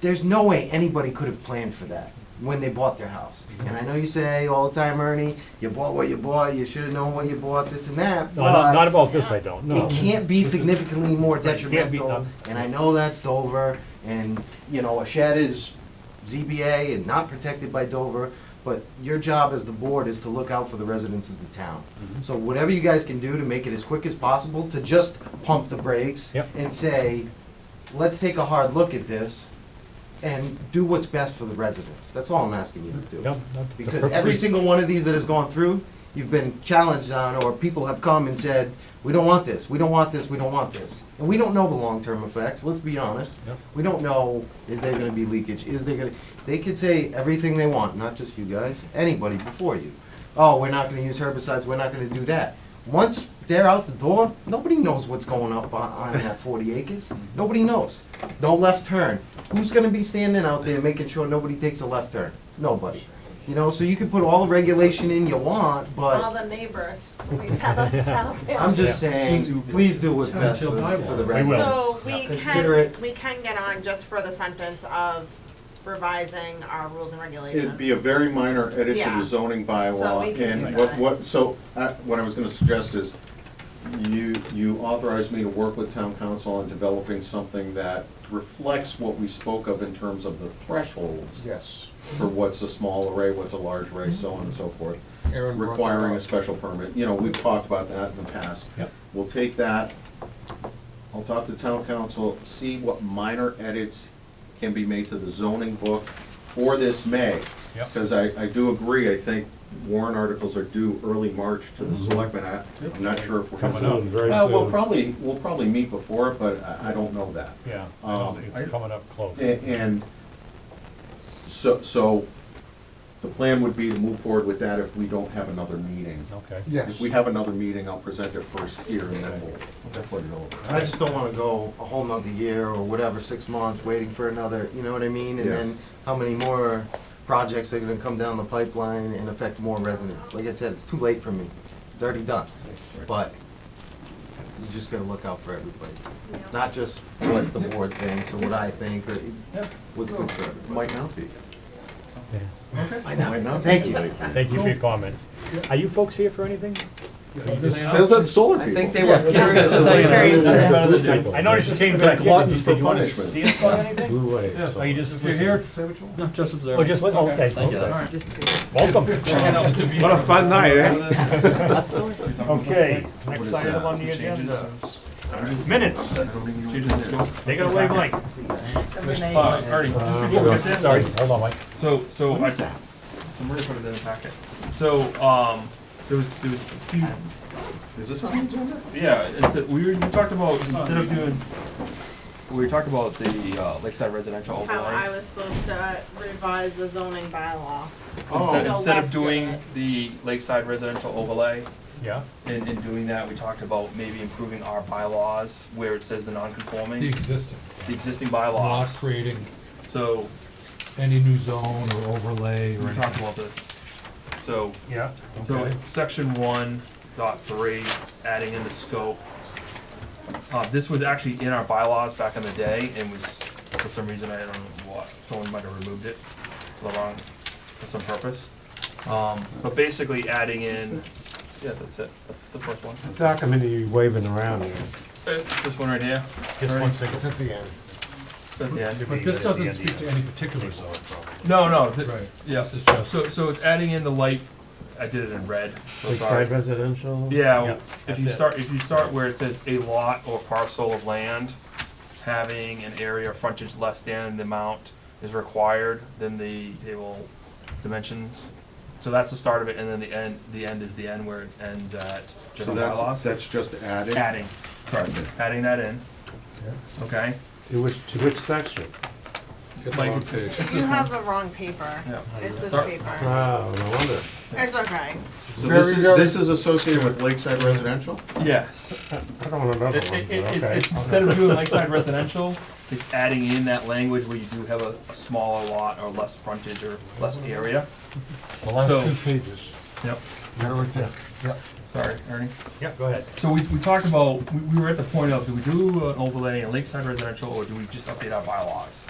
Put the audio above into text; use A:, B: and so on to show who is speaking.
A: there's no way anybody could have planned for that when they bought their house. And I know you say all the time, Ernie, you bought what you bought, you should have known what you bought, this and that,
B: No, not, not
A: but
B: about this, I don't, no.
A: it can't be significantly more
B: Right, can't be
A: detrimental.
B: done.
A: And I know that's Dover, and, you know, a shed is ZBA and not protected by Dover, but your job as the board is to look out for the residents of the town.
B: Mm-hmm.
A: So whatever you guys can do to make it as quick as possible, to just pump the brakes
B: Yep.
A: and say, let's take a hard look at this and do what's best for the residents. That's all I'm asking you to
B: Yep,
A: do.
B: that's a
A: Because every
B: perfectly-
A: single one of these that has gone through, you've been challenged on, or people have come and said, we don't want this, we don't want this, we don't want this. And we don't know the long-term effects, let's be honest.
B: Yep.
A: We don't know, is there gonna be leakage, is there gonna, they could say everything they want, not just you guys, anybody before you. Oh, we're not gonna use herbicides, we're not gonna do that. Once they're out the door, nobody knows what's going up on, on that forty acres, nobody knows. No left turn, who's gonna be standing out there making sure nobody takes a left turn? Nobody. You know, so you can put all the regulation in you want,
C: All
A: but
C: the neighbors, we tell, tell them.
A: I'm just
B: Yeah.
A: saying, please do what's best for the, for the
B: We will.
A: residents.
C: So we
A: Consider
C: can,
A: it-
C: we can get on just for the sentence of revising our rules and regulations.
D: It'd be a very minor edit to
C: Yeah.
D: the zoning
C: So we can
D: bylaw,
C: do
D: and what,
C: that.
D: what, so, I- what I was gonna suggest is, you, you authorized me to work with town council on developing something that reflects what we spoke of in terms of the thresholds
E: Yes.
D: for what's a small array, what's a large array, so on and so forth,
E: Aaron brought that
D: requiring a
E: up.
D: special permit, you know, we've talked about that in the past.
B: Yep.
D: We'll take that, I'll talk to town council, see what minor edits can be made to the zoning book for this May.
B: Yep.
D: Because I, I do agree, I think warrant articles are due early March to the selectmen, I, I'm not sure if we're.
B: Mhm. Coming up very
D: Well, we'll
B: soon,
D: probably, we'll probably meet before, it, but I, I don't know that.
B: yeah,
D: Um, I-
B: it's coming up close.
D: A- And so, so the plan would be to move forward with that if we don't have another meeting.
B: Okay.
E: Yes.
D: If we have another meeting, I'll present it first here and then we'll we'll put it over.
A: I just don't wanna go a whole nother year or whatever, six months, waiting for another, you know what I mean? And
D: Yes.
A: then how many more projects are gonna come down the pipeline and affect more residents? Like I said, it's too late for me, it's already done, but you just gotta look out for everybody.
C: Yeah.
A: Not just what the board thinks or what I think or
B: Yep.
A: what's good for everybody.
D: Might not be.
B: Yeah.
D: Might not. be.
A: Thank you.
B: Thank you for your comments. Are you folks here for anything?
D: Those are the solar
A: I
D: people.
A: think they were curious.
C: Curious.
B: I I noticed you came back. in.
D: gluttons
B: Did
D: for
B: you wanna
D: punishment.
B: See us on anything?
F: Blue wave. so-
B: Are you just
G: If you're here,
B: listening?
G: say what you want.
F: No, just observe.
B: Oh, just, li- oh, okay,
F: Thank you.
B: okay.
G: Alright.
B: Welcome.
G: What a fun night, eh?
B: Okay, next
D: is
B: item
D: that?
B: on the agenda, minutes. Take it away, Mike. Uh, Sorry, hold on, Mike.
G: So, so I. So Maria put it in the packet. So, um, there was, there was a few,
D: Is this on the agenda?
G: yeah, it's, that we were- we talked about, instead of doing, we talked about the uh, Lakeside Residential
C: How I
G: overlay.
C: was supposed to revise the zoning bylaw.
G: Oh. Instead,
C: So
G: instead
C: Wes
G: of
C: did
G: doing
C: it.
G: the Lakeside Residential overlay,
B: Yeah,
G: in, in doing that, we talked about maybe improving our bylaws where it says the
H: The
G: non-conforming,
H: existing,
G: the existing
H: not
G: bylaws.
H: creating
G: So,
H: any new zone or overlay or
G: we
H: anything.
G: talked about this. So,
B: yeah.
G: So
B: okay.
G: section one dot three, adding in the scope. Uh, this was actually in our bylaws back in the day and was, for some reason, I don't know what, someone might have removed it to the wrong, for some purpose. Um, but basically adding in, yeah, that's it, that's the first one.
F: Documentary waving around here.
G: Uh, It's this one right here,
B: Just one second.
E: It's at the end.
G: it's at the end.
H: But this doesn't speak to any particular zone, probably.
G: No, no, th-
H: Right.
G: yeah,
H: This is just,
G: so, so it's adding in the light, I did it in red, so sorry.
F: Lakeside residential?
G: Yeah,
B: Yeah,
G: well, if
B: that's
G: you
B: it.
G: start, if you start where it says a lot or parcel of land having an area or frontage less than the amount is required, then the table dimensions. So that's the start of it, and then the end, the end is the end where it ends at
D: So
G: general
D: that's,
G: bylaws.
D: that's just added?
G: Adding, correct, adding that in, okay?
F: To which, to which section?
H: get the
G: Like
H: wrong
G: it's-
H: page.
C: You have the wrong paper.
G: Yeah.
C: It's this
G: Start-
C: paper.
F: Oh, no wonder.
C: It's okay.
D: So this
E: Very,
D: is,
E: very-
D: this is associated with Lakeside Residential?
G: Yes.
F: I don't want another
G: It-
F: one,
G: it-
F: but
G: it-
F: okay.
G: it- Instead of doing lakeside residential, it's adding in that language where you do have a a smaller lot or less frontage or less area.
E: The last
G: So-
E: two pages.
G: Yep.
E: They're right there. Yep.
G: Sorry, Ernie.
B: Yeah, go ahead.
G: So we, we talked uh, about, we, we were at the point of, do we do an overlay in lakeside residential, or do we just update our bylaws?